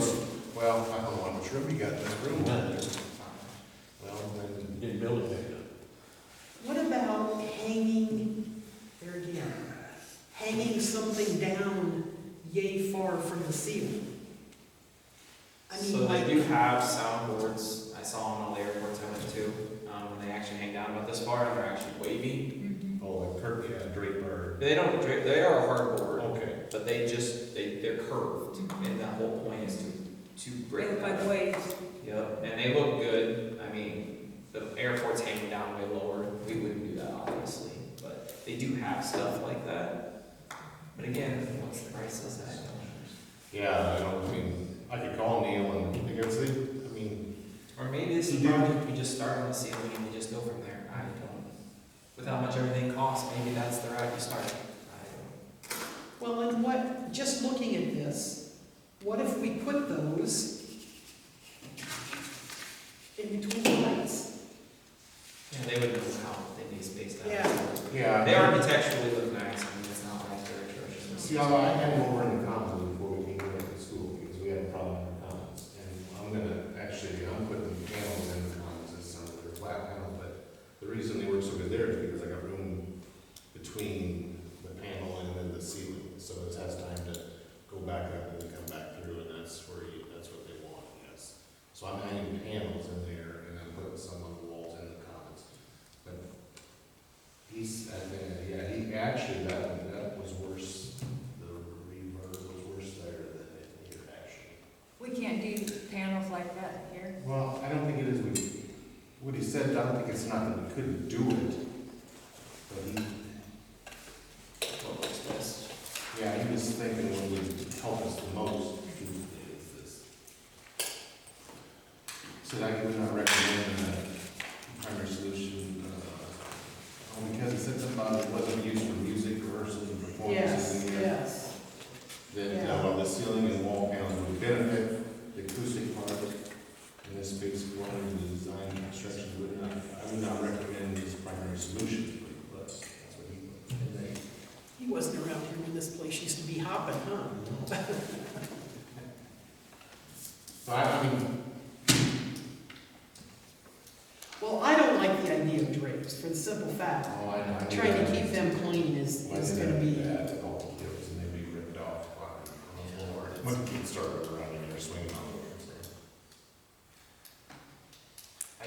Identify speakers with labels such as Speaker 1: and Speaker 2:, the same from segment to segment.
Speaker 1: Well, I don't know how much room you got in that room.
Speaker 2: None.
Speaker 1: Well, then,
Speaker 2: Get building back up.
Speaker 3: What about hanging, there again, hanging something down yay far from the ceiling? I mean,
Speaker 4: So they
Speaker 3: like,
Speaker 4: do have soundboards, I saw on all the airports I went to, um, when they actually hang down about this far, and they're actually wavy.
Speaker 1: oh, like Kirk, yeah, Draper.
Speaker 4: They don't, dra- they are a hardboard,
Speaker 1: Okay.
Speaker 4: but they just, they, they're curved, and that whole point is to, to break
Speaker 5: Break
Speaker 4: that
Speaker 5: by
Speaker 4: up.
Speaker 5: waves.
Speaker 4: Yep, and they look good, I mean, the airport's hanging down way lower, we wouldn't do that obviously, but they do have stuff like that. But again, what's the price of that?
Speaker 1: Yeah, I don't, I mean, I could call Neil and, I guess, they- I mean,
Speaker 4: Or maybe this is
Speaker 1: You do.
Speaker 4: project, we just start on the ceiling and we just go from there, I don't. With how much everything costs, maybe that's the route you start, I
Speaker 3: well, and what, just looking at this, what if we put those in between the lights?
Speaker 4: don't. Yeah, they would know how, they need space down.
Speaker 3: Yeah.
Speaker 1: yeah.
Speaker 4: They architecturally look nice, I mean, it's not like they're atrocious.
Speaker 1: See, I I had him over in the commons before we came here to school, because we had a problem in the commons. And I'm gonna, actually, I'm putting panels in the commons, it's not a flat panel, but the reason they work so good there is because I got room between the panel and then the ceiling. So it has time to go back up and then come back through, and that's where you, that's what they want, yes. So I'm adding panels in there, and I'm putting some of the walls in the commons. But he's, I mean, yeah, he, actually, that, that was worse the reverb was worse there than it here, actually.
Speaker 5: We can't do panels like that here.
Speaker 1: Well, I don't think it is, we- what he said, I don't think it's not that we couldn't do it. But he,
Speaker 4: What looks best.
Speaker 1: yeah, he was thinking what would help us the most is this. So I would not recommend a primary solution, uh, only because it said something about it wasn't used for music, rehearsals, and performances.
Speaker 3: Yes,
Speaker 1: in the air.
Speaker 3: yes.
Speaker 1: that,
Speaker 3: Yeah.
Speaker 1: uh, while the ceiling and wall panels would benefit, the acoustic part in this space form and the design and construction would not, I would not recommend this primary solution, but that's what he.
Speaker 3: He wasn't around here when this place used to be hopping, huh?
Speaker 1: But I mean,
Speaker 3: Well, I don't like the idea of drapes, for the simple fact,
Speaker 1: oh, I know. I think
Speaker 3: trying to
Speaker 1: that-
Speaker 3: keep them clean is,
Speaker 1: Why
Speaker 3: is
Speaker 1: did
Speaker 3: gonna
Speaker 1: they do
Speaker 3: be.
Speaker 1: that? They all do it, and they'd be ripped off on the floor. When kids start running or swinging on the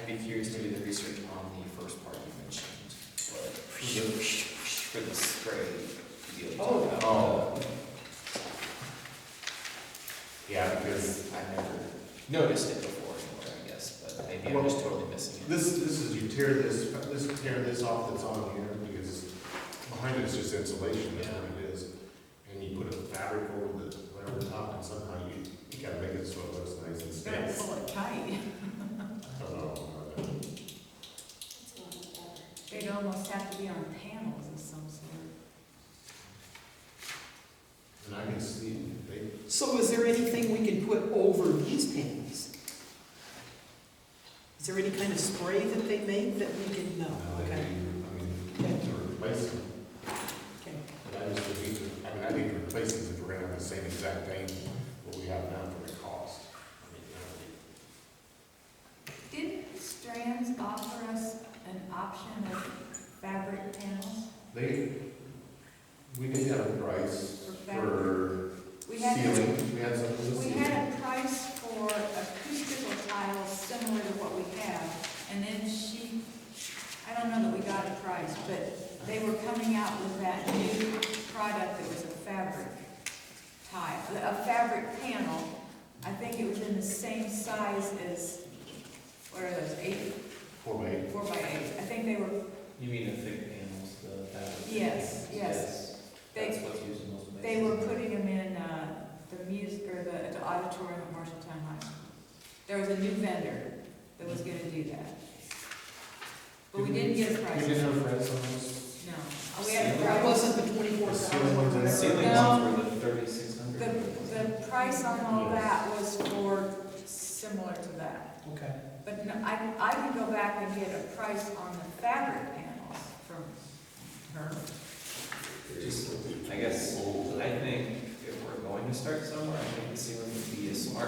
Speaker 4: I'd be curious to do the research on the first part you mentioned, but for the spray deal. you
Speaker 3: Oh.
Speaker 4: talked about,
Speaker 1: Oh. Yeah, because
Speaker 4: Uh, I've never noticed it before anywhere, I guess, but maybe I'm just totally missing it.
Speaker 1: This, this is, you tear this, this, tear this off that's on here, because behind it's just insulation, that's what it is. And you put a fabric over the, over the top, and somehow you, you gotta make it so it looks nice and
Speaker 5: Gotta
Speaker 1: stands.
Speaker 5: pull it tight.
Speaker 1: I don't know.
Speaker 5: They'd almost have to be on panels of some sort.
Speaker 1: And I can see, they,
Speaker 3: So is there anything we can put over these panels? Is there any kind of spray that they make that we can, no,
Speaker 1: now they, I
Speaker 3: okay,
Speaker 1: mean, to replace them,
Speaker 3: okay.
Speaker 1: but I just, would need to- I mean, I need to replace these if we're gonna have the same exact thing, what we have now for the cost. I mean, that
Speaker 5: Didn't Strands offer us an option of fabric panels?
Speaker 1: would- They, we did have a price
Speaker 5: for fabric?
Speaker 1: for
Speaker 5: We had,
Speaker 1: Ceiling, we had some for the
Speaker 5: we
Speaker 1: ceiling.
Speaker 5: had a price for acoustical tiles similar to what we have, and then she, I don't know that we got a price, but they were coming out with that new product that was a fabric tile, a fabric panel. I think it was in the same size as, what are those, eight,
Speaker 1: Four by eight.
Speaker 5: four by eight? I think they were,
Speaker 4: You mean the thick panels, the fabric?
Speaker 5: Yes, yes.
Speaker 4: That's what's used in most places.
Speaker 5: they were putting them in, uh, the music, or the the auditorium at Marshalltown High School. There was a new vendor that was gonna do that. But we didn't get a price,
Speaker 1: We
Speaker 5: no.
Speaker 1: didn't have rents on those.
Speaker 5: We had a
Speaker 3: That
Speaker 5: price,
Speaker 3: wasn't the twenty-four
Speaker 1: Ceiling
Speaker 3: thousand or
Speaker 1: ones and
Speaker 4: The
Speaker 3: whatever.
Speaker 4: ceiling
Speaker 5: No.
Speaker 4: ones were the thirty-six hundred.
Speaker 5: the, the price on all that was for similar to that.
Speaker 3: Okay,
Speaker 5: But no, I, I can go back and get a price on the fabric panels from her.
Speaker 4: Just, I guess, I think if we're going to start somewhere, I think the ceiling would be a smart